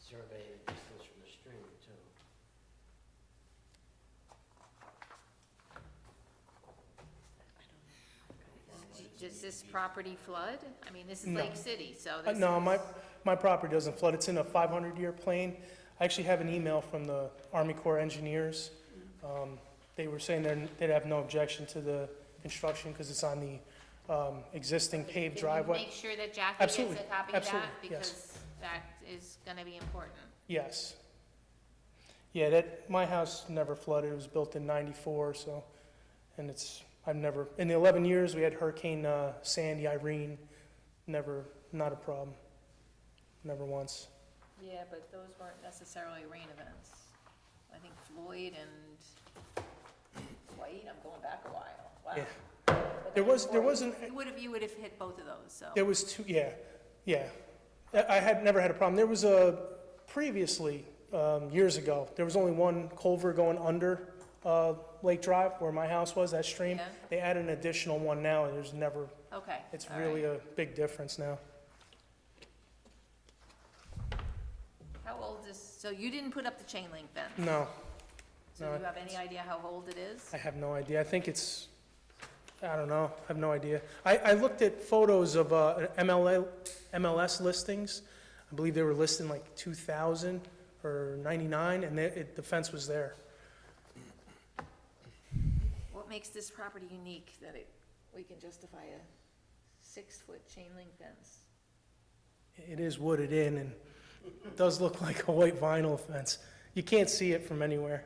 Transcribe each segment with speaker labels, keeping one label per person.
Speaker 1: survey the distance from the stream too.
Speaker 2: Does this property flood? I mean, this is
Speaker 3: No.
Speaker 2: Lake City, so
Speaker 3: Uh,
Speaker 2: this
Speaker 3: No, my,
Speaker 2: is-
Speaker 3: my property doesn't flood. It's in a 500-year plain. I actually have an email from the Army Corps engineers. Um, They were saying they're- they'd have no objection to the construction because it's on the um, existing paved
Speaker 2: Can you
Speaker 3: driveway.
Speaker 2: Make sure that Jackie gets
Speaker 3: Absolutely,
Speaker 2: a copy of that,
Speaker 3: absolutely, yes.
Speaker 2: because that is gonna be important.
Speaker 3: Yes. Yeah, that, my house never flooded. It was built in 94, so, and it's, I've never, in the 11 years, we had Hurricane uh, Sandy, Irene, never, not a problem. Never once.
Speaker 2: Yeah, but those weren't necessarily rain events. I think Floyd and White, I'm going back a while, wow.
Speaker 3: Yeah. There was, there was an,
Speaker 2: You would have, you would have hit both of those, so.
Speaker 3: There was two, yeah, yeah. I I had never had a problem. There was a, previously, um, years ago, there was only one culvert going under uh, Lake Drive where my house was, that stream.
Speaker 2: Yeah.
Speaker 3: They added an additional one now, and there's never,
Speaker 2: Okay.
Speaker 3: it's
Speaker 2: all
Speaker 3: really
Speaker 2: right.
Speaker 3: a big difference now.
Speaker 2: How old is, so you didn't put up the chain link fence?
Speaker 3: No,
Speaker 2: So
Speaker 3: no,
Speaker 2: do you have any idea how old it is?
Speaker 3: I have no idea. I think it's, I don't know, I have no idea. I, I looked at photos of uh, MLA, MLS listings. I believe they were listed in like 2000 or 99, and they- it- the fence was there.
Speaker 2: What makes this property unique that it, we can justify a six-foot chain link fence?
Speaker 3: It is wooded in and does look like a white vinyl fence. You can't see it from anywhere,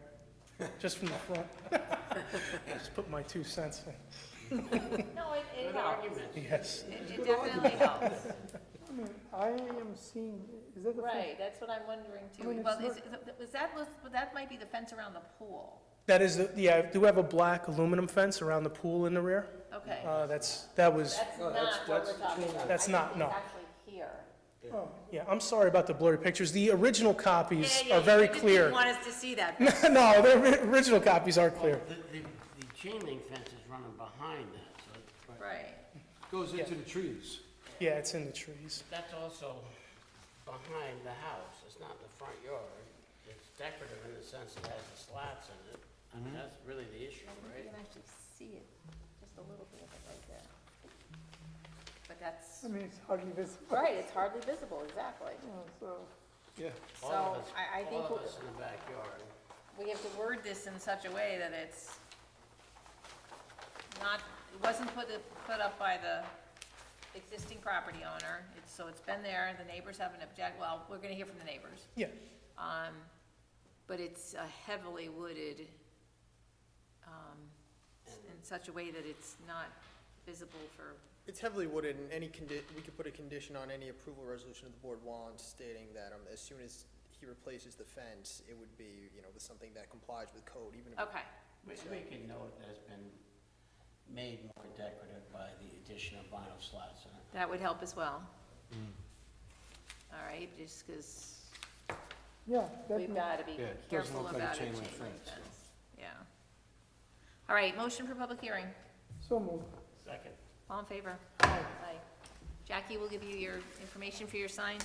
Speaker 3: just from the front. Just put my two cents
Speaker 2: No, it, it
Speaker 1: Good
Speaker 2: helps.
Speaker 1: argument.
Speaker 3: in, yes.
Speaker 2: It it definitely helps.
Speaker 4: I mean, I am seeing, is that the? fir-
Speaker 2: Right, that's what I'm wondering
Speaker 4: I mean,
Speaker 2: too.
Speaker 4: it's
Speaker 2: Well, is, is- was that, was, but that might be the fence around the pool.
Speaker 3: That is, the- yeah, I do have a black aluminum fence around the pool in the rear.
Speaker 2: Okay.
Speaker 3: Uh, that's, that was,
Speaker 2: That's
Speaker 1: No,
Speaker 2: not
Speaker 1: that's-
Speaker 2: what we're
Speaker 1: that's
Speaker 2: talking
Speaker 1: chain
Speaker 2: about.
Speaker 1: link.
Speaker 3: That's
Speaker 2: I think
Speaker 3: not,
Speaker 2: it's
Speaker 3: no.
Speaker 2: Actually here.
Speaker 3: yeah, I'm sorry about the blurry pictures. The original copies are very
Speaker 2: You
Speaker 3: clear.
Speaker 2: want us to see that.
Speaker 3: No, the ori- original copies are clear.
Speaker 1: The, the, the chain link fence is running behind that, so it-
Speaker 2: Right.
Speaker 5: Goes into the trees.
Speaker 3: Yeah, it's in the trees.
Speaker 1: that's also behind the house, it's not in the front yard. It's decorative in the sense it has the slats in it, I mean, that's really the issue,
Speaker 2: You
Speaker 1: right?
Speaker 2: can actually see it, just a little bit of it right there. But that's,
Speaker 4: I mean, it's hardly visible.
Speaker 2: right, it's hardly visible, exactly.
Speaker 4: you know, So,
Speaker 5: Yeah.
Speaker 2: So
Speaker 1: All of us,
Speaker 2: I, I think
Speaker 1: All of
Speaker 2: we-
Speaker 1: us in the backyard.
Speaker 2: we have to word this in such a way that it's not, it wasn't put, put up by the existing property owner. It's, so it's been there, the neighbors haven't object, well, we're gonna hear from the neighbors.
Speaker 3: Yeah,
Speaker 2: Um, but it's a heavily wooded, um, in such a way that it's not visible for,
Speaker 6: It's heavily wooded, and any condi, we could put a condition on any approval resolution of the board wants stating that, um, as soon as he replaces the fence, it would be, you know, with something that complies with code, even if.
Speaker 2: okay.
Speaker 1: We, we can note that it's been made more decorative by the addition of vinyl slats in it.
Speaker 2: That would help as well.
Speaker 5: Mm.
Speaker 2: All right, just because
Speaker 4: yeah, that,
Speaker 2: we've
Speaker 4: ma-
Speaker 2: got to be
Speaker 5: Yeah, it doesn't
Speaker 2: careful
Speaker 5: look like a
Speaker 2: about a chain
Speaker 5: chain
Speaker 2: link
Speaker 5: link fence, so.
Speaker 2: fence. Yeah. All right, motion for public hearing.
Speaker 4: so moved.
Speaker 1: Second.
Speaker 2: All in favor? Aye. Jackie will give you your information for your signs,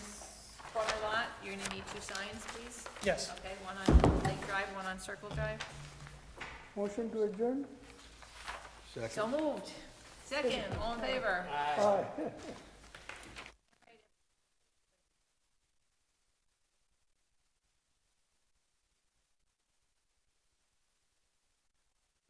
Speaker 2: corner lot. You're going to need two signs, please.
Speaker 3: yes.
Speaker 2: Okay, one on Lake Drive, one on Circle Drive.
Speaker 4: Motion to adjourn?
Speaker 2: So moved. Second, all in favor?
Speaker 4: Aye.